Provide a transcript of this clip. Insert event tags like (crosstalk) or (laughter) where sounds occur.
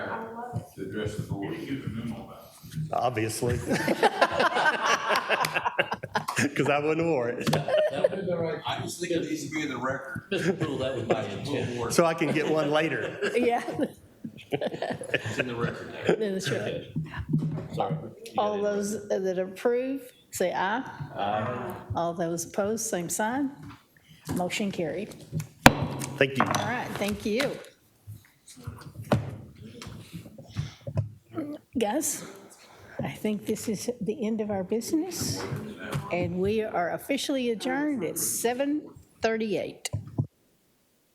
address the board. You get the memo about. obviously. (laughs) Because I wouldn't award it. That would- I just think it needs to be in the record. Mr. Poole, that was my intent. So I can get one later. Yeah, (laughs) It's in the record there. then it's your- Okay. Sorry. You got All it. those that approve, say aye. All those opposed, same sign. Motion carried. Thank you. All right, thank you. Guys, I think this is the end of our business, and we are officially adjourned at 7:38.